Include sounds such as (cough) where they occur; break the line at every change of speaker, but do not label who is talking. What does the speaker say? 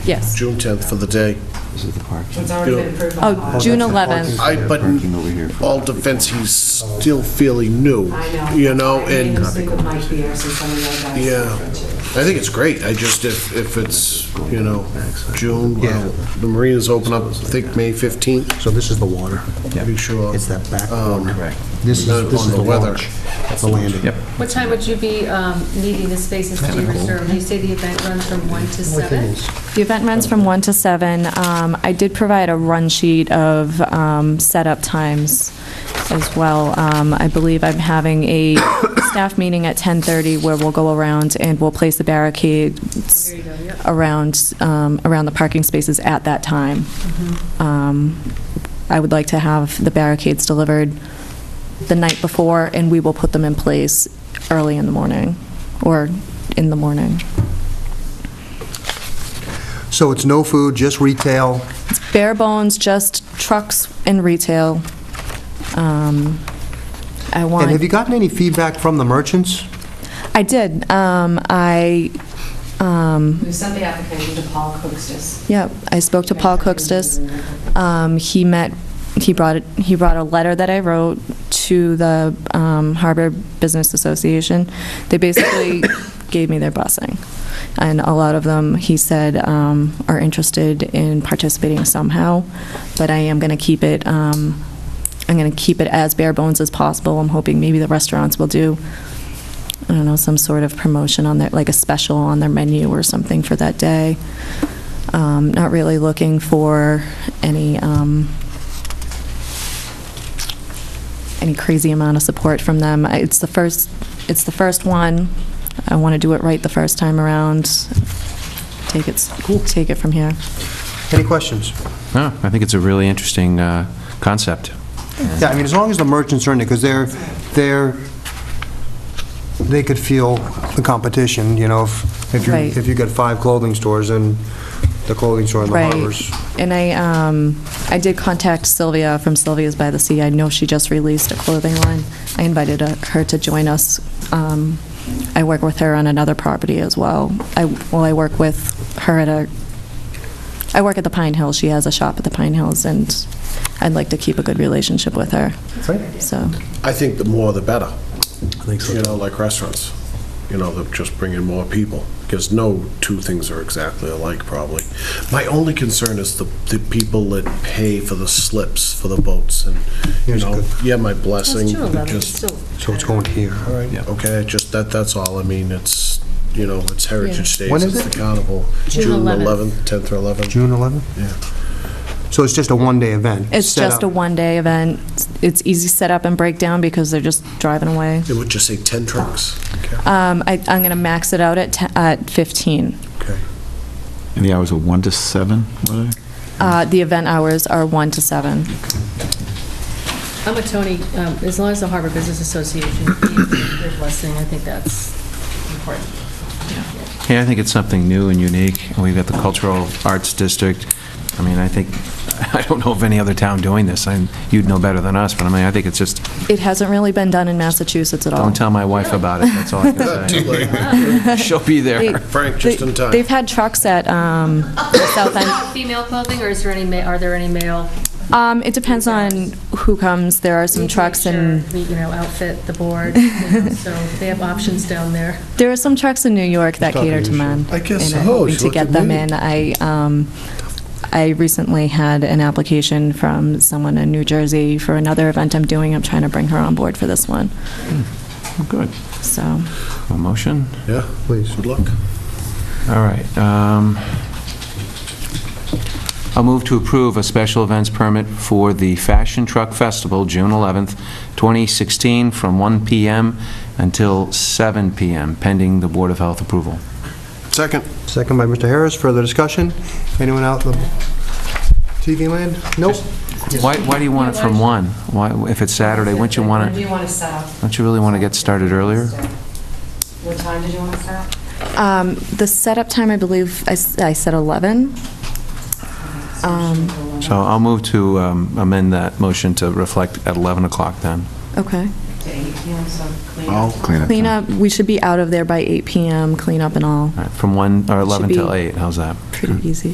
Yes.
June 10th for the day.
This is the parking.
It's already been approved by
Oh,
law.
June
That's the
11th.
parking.
I, but
Parking over here for-
all defense, he's still fairly new.
I know.
You know,
I
and
made a mistake with Mike Pierce and some of the other
Yeah.
guys.
I think it's great. I just, if, if it's, you know, June, well, the marinas open up, I think, May 15th,
So this is the water.
be sure.
It's that back
Um,
corner.
Correct.
This is,
Not
this
on
is
the
the
weather.
launch. That's the landing.
Yep.
What time would you be um, needing the spaces to be reserved? You say the event runs from 1 to 7?
The event runs from 1 to 7. Um, I did provide a run sheet of um, setup times as well. Um, I believe I'm having a (coughs) staff meeting at 10:30 where we'll go around and we'll place the barricades
There you go, yep.
around, um, around the parking spaces at that time. Um, I would like to have the barricades delivered the night before, and we will put them in place early in the morning, or in the morning.
So it's no food, just retail.
Bare bones, just trucks and retail. Um, I want.
And have you gotten any feedback from the merchants?
I did. Um, I, um,
We sent the application to Paul Cookstis.
yeah, I spoke to Paul Cookstis. Um, He met, he brought, it- he brought a letter that I wrote to the um, Harbor Business Association. They basically gave me their blessing. And a lot of them, he said, um, are interested in participating somehow, but I am going to keep it, um, I'm going to keep it as bare bones as possible. I'm hoping maybe the restaurants will do, I don't know, some sort of promotion on their, like a special on their menu or something for that day. Um, Not really looking for any, um, any crazy amount of support from them. I- It's the first, it's the first one. I want to do it right the first time around. Take it, s- take it from here.
Any questions?
No, I think it's a really interesting uh, concept.
Yeah, I mean, as long as the merchants are in it, because they're, they're, they could feel the competition, you know, if, if you,
Right.
if you got five clothing stores and the clothing store in the
Right.
harbors.
And I, um, I did contact Sylvia from Sylvia's by the Sea. I know she just released a clothing line. I invited uh, her to join us. Um, I work with her on another property as well. I, well, I work with her at a, I work at the Pine Hills. She has a shop at the Pine Hills, and I'd like to keep a good relationship with her, so.
I think the more the better. I think so. You know, like restaurants, you know, they'll just bring in more people, because no two things are exactly alike, probably. My only concern is the, the people that pay for the slips for the boats, and, you
Here's
know,
good.
yeah, my blessing,
That's true, 11, it's
just,
still.
So it's going here.
all right,
Yeah.
okay, just that, that's all, I mean, it's, you know, it's Heritage Days.
When is
it's
it?
the carnival.
June 11th.
10th or 11th.
June 11th?
Yeah.
So it's just a one-day event?
It's
set
just a
up.
one-day event. It's easy setup and breakdown because they're just driving away.
It would just say 10 trucks. Okay.
Um, I, I'm gonna max it out at, te- at 15.
Okay.
And the hours are 1 to 7, were they?
Uh, The event hours are 1 to 7.
I'm a Tony, um, as long as the Harbor Business Association gave their blessing, I think that's important.
Yeah, I think it's something new and unique. We've got the Cultural Arts District. I mean, I think, (laughs) I don't know of any other town doing this. I'm- You'd know better than us, but I mean, I think it's just,
It hasn't really been done in Massachusetts at all.
don't tell my wife about it, that's all
(laughs)
I can
Too
say.
late.
She'll be
They-
there.
Frank, just
they-
in time.
They've had trucks at um, the South End.
Female clothing, or is there any, ma- are there any male?
Um, It depends on who comes. There are
We
some
need to
trucks
make
in,
sure we, You know, outfit the board, you know, so they have options down there.
there are some trucks in New York that cater to men.
I guess
and I'm
so.
hoping
She
to
looked
get
at
them
me.
in. I, um, I recently had an application from someone in New Jersey for another event I'm doing. I'm trying to bring her on board for this one,
Good.
so.
A motion?
Yeah,
Please.
good luck.
All right. um, I'll move to approve a special events permit for the Fashion Truck Festival, June 11th, 2016, from 1 PM until 7 PM, pending the Board of Health approval.
Second.
Second by Mr. Harris, further discussion? Anyone out in the TV land? Nope.
Why, why do you want it from 1? Why, if it's Saturday, wouldn't you want
When do
to,
you want to set up?
don't you really want to get started earlier?
What time did you want to set up?
Um, The setup time, I believe, I s- I said 11. Um,
So I'll move to um, amend that motion to reflect at 11 o'clock then.
Okay.
To eight, you know, so clean up.
I'll clean up.
Clean up, we should be out of there by 8 PM, clean up and all,
All right, From 1, or 11
Should
till
be-
8, how's that?
pretty easy.